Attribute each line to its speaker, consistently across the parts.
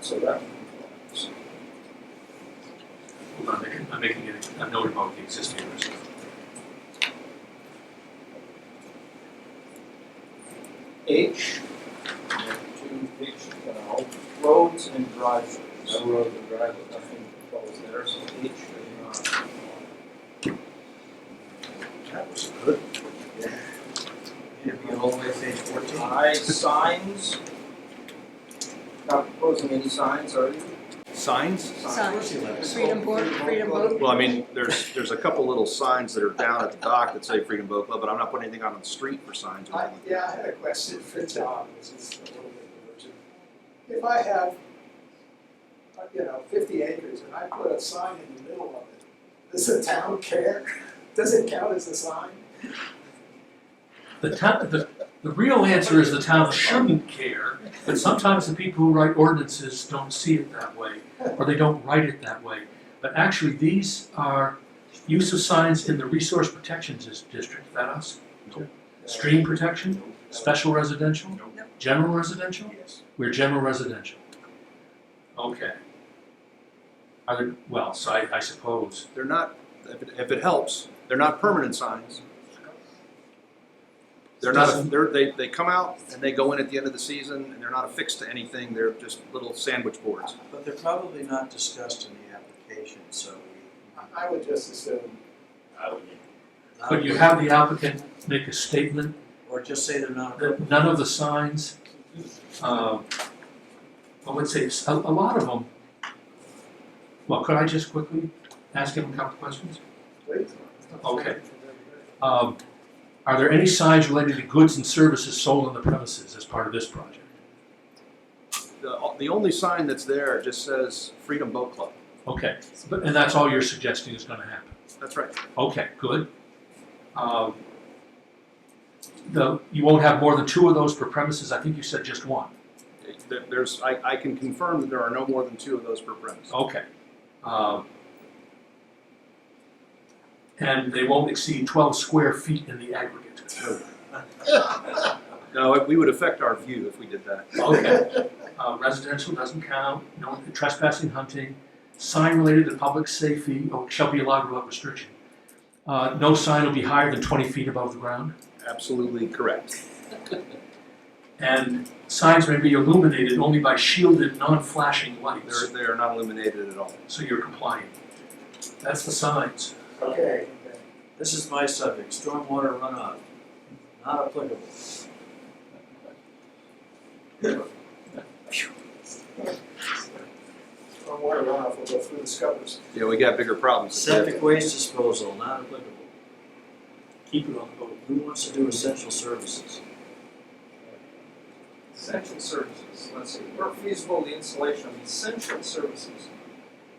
Speaker 1: so that.
Speaker 2: Hold on, I'm making- I'm making a- a note about the existing owners.
Speaker 1: H, two H, you know, roads and driveways. No roads and driveways. Nothing falls there, so H is not.
Speaker 3: That was good.
Speaker 1: You're going all the way to page fourteen. I, signs. Not proposing any signs, are you?
Speaker 3: Signs?
Speaker 4: Signs.
Speaker 1: Signs.
Speaker 4: Freedom Boat, Freedom Boat.
Speaker 3: Well, I mean, there's, there's a couple little signs that are down at the dock that say Freedom Boat Club, but I'm not putting anything out on the street for signs or
Speaker 5: I,
Speaker 3: anything.
Speaker 5: yeah, I had a question for Tom, which is a little bit divergent. If I have, uh, you know, fifty acres and I put a sign in the middle of it, does the town care? Does it count as a sign?
Speaker 2: The town, the, the real answer is the town shouldn't care, but sometimes the people who write ordinances don't see it that way, or they don't write it that way. But actually, these are use of signs in the resource protections Dis- district, is that us?
Speaker 3: Nope.
Speaker 2: Stream protection, special residential,
Speaker 3: Nope.
Speaker 2: general residential?
Speaker 3: Yes.
Speaker 2: We're general residential. Okay. Are there, well, so I, I suppose,
Speaker 3: They're not, if it, if it helps, they're not permanent signs. They're not,
Speaker 2: Doesn't-
Speaker 3: they're, they, they come out and they go in at the end of the season and they're not affixed to anything, they're just little sandwich boards.
Speaker 6: But they're probably not discussed in the application, so we.
Speaker 5: I, I would just assume,
Speaker 2: could you have the applicant make a statement
Speaker 6: Or just say they're not.
Speaker 2: that none of the signs, um, I would say, s- a, a lot of them. Well, could I just quickly ask him a couple questions?
Speaker 5: wait.
Speaker 2: Okay. Um, are there any signs related to goods and services sold on the premises as part of this project?
Speaker 3: The, the only sign that's there just says Freedom Boat Club.
Speaker 2: Okay, but, and that's all you're suggesting is gonna happen?
Speaker 3: That's right.
Speaker 2: Okay, good. Um, the, you won't have more than two of those per premises, I think you said just one.
Speaker 3: There- There's, I, I can confirm that there are no more than two of those per premise.
Speaker 2: Okay. Um, And they won't exceed twelve square feet in the aggregate.
Speaker 3: No, we would affect our view if we did that.
Speaker 2: Okay. Uh, residential doesn't count, no trespassing, hunting, sign related to public safety oh, shall be allowed without restriction. Uh, no sign will be higher than twenty feet above the ground,
Speaker 3: Absolutely correct.
Speaker 2: and signs may be illuminated only by shielded, non-flashing
Speaker 3: They're,
Speaker 2: lights,
Speaker 3: they are not illuminated at all.
Speaker 2: so you're compliant. That's the signs.
Speaker 5: Okay,
Speaker 6: This is my subject, stormwater runoff, not applicable.
Speaker 5: stormwater runoff will go through the scuppers.
Speaker 3: Yeah, we got bigger problems. than that.
Speaker 6: Septic waste disposal, not applicable.
Speaker 2: Keep it on the boat.
Speaker 6: Who wants to do essential services?
Speaker 1: Essential services, let's see, where feasible, the installation of essential services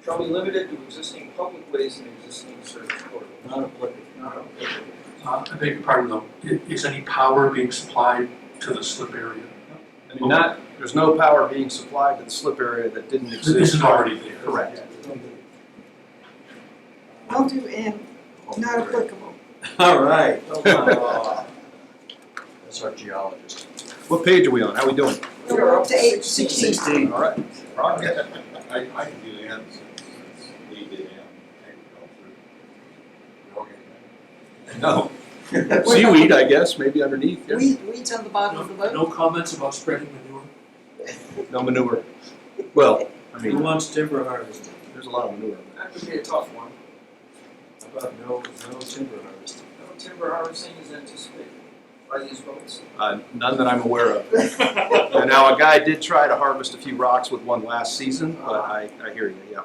Speaker 1: shall be limited to existing public ways and existing service corridors.
Speaker 6: Not applicable.
Speaker 1: Not applicable.
Speaker 2: Uh, I beg your pardon though, i- is any power being supplied to the slip area?
Speaker 3: I mean, not, there's no power being supplied to the slip area that didn't
Speaker 2: This is
Speaker 3: exist.
Speaker 2: already there.
Speaker 3: Correct.
Speaker 4: I'll do M, not applicable.
Speaker 6: All right.
Speaker 5: Uh,
Speaker 6: Oh, That's our geologist.
Speaker 3: What page are we on? How we doing?
Speaker 4: No, we're up to eight sixteen.
Speaker 3: All right.
Speaker 7: I, I can do M since we did M, agriculture.
Speaker 3: No. Seaweed, I guess, maybe underneath. yeah.
Speaker 4: Weed, weeds on the bottom of the
Speaker 2: No,
Speaker 4: boat.
Speaker 2: no comments about spreading manure?
Speaker 3: No manure. Well, I
Speaker 6: Who
Speaker 3: mean,
Speaker 6: wants timber harvesting?
Speaker 3: there's a lot of manure.
Speaker 1: That would be a tough one,
Speaker 6: How about no, no timber harvesting?
Speaker 1: no timber harvesting is anticipated by these boats.
Speaker 3: Uh, none that I'm aware of. And now, a guy did try to harvest a few rocks with one last season, but I, I hear you, yeah.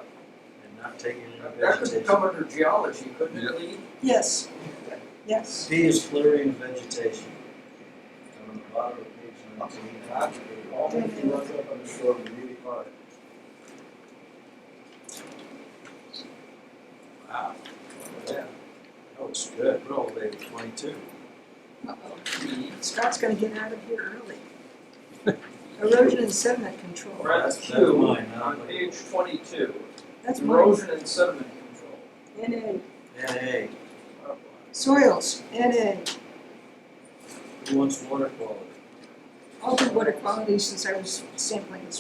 Speaker 6: And not taking any
Speaker 1: That could
Speaker 6: vegetation?
Speaker 1: come under geology, couldn't it, Lee?
Speaker 4: Yes, yes.
Speaker 6: B is clearing vegetation. On the bottom of page nineteen.
Speaker 5: All the runs up on the shore are really hard.
Speaker 6: Wow. Yeah. That was good. We're all the way to twenty-two.
Speaker 4: Uh-oh. Scott's gonna get out of here early. Erosion and sediment control,
Speaker 1: Right.
Speaker 6: That's, that's
Speaker 1: Two.
Speaker 6: mine, not
Speaker 1: On
Speaker 6: like.
Speaker 1: page twenty-two,
Speaker 4: that's mine.
Speaker 1: erosion and sediment control.
Speaker 4: NA,
Speaker 6: And A,
Speaker 1: Not applicable.
Speaker 4: soils, NA.
Speaker 6: who wants water quality?
Speaker 4: I'll do water quality since I was sampling this